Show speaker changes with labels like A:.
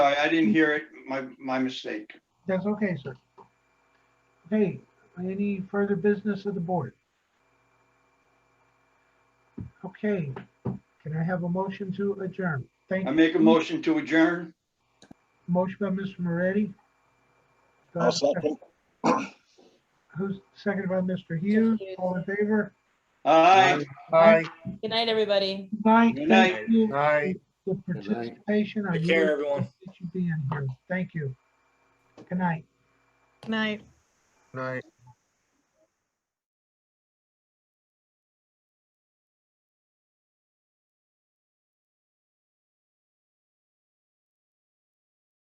A: I, I didn't hear it. My, my mistake.
B: That's okay, sir. Okay, any further business of the board? Okay, can I have a motion to adjourn? Thank,
A: I make a motion to adjourn.
B: motion by Mr. Moretti. Do I
C: I'll
B: have a
C: second.
B: Who's seconded by Mr. Hughes?
D: Hughes.
B: All in favor?
A: Aye.
E: Aye,
D: Good night, everybody.
B: Night.
A: Good
B: Thank
A: night.
B: you
E: aye.
B: for participation. I
C: Take care,
B: really
C: everyone.
B: appreciate you being here. Thank you. Good night.
F: Good night.
E: Night.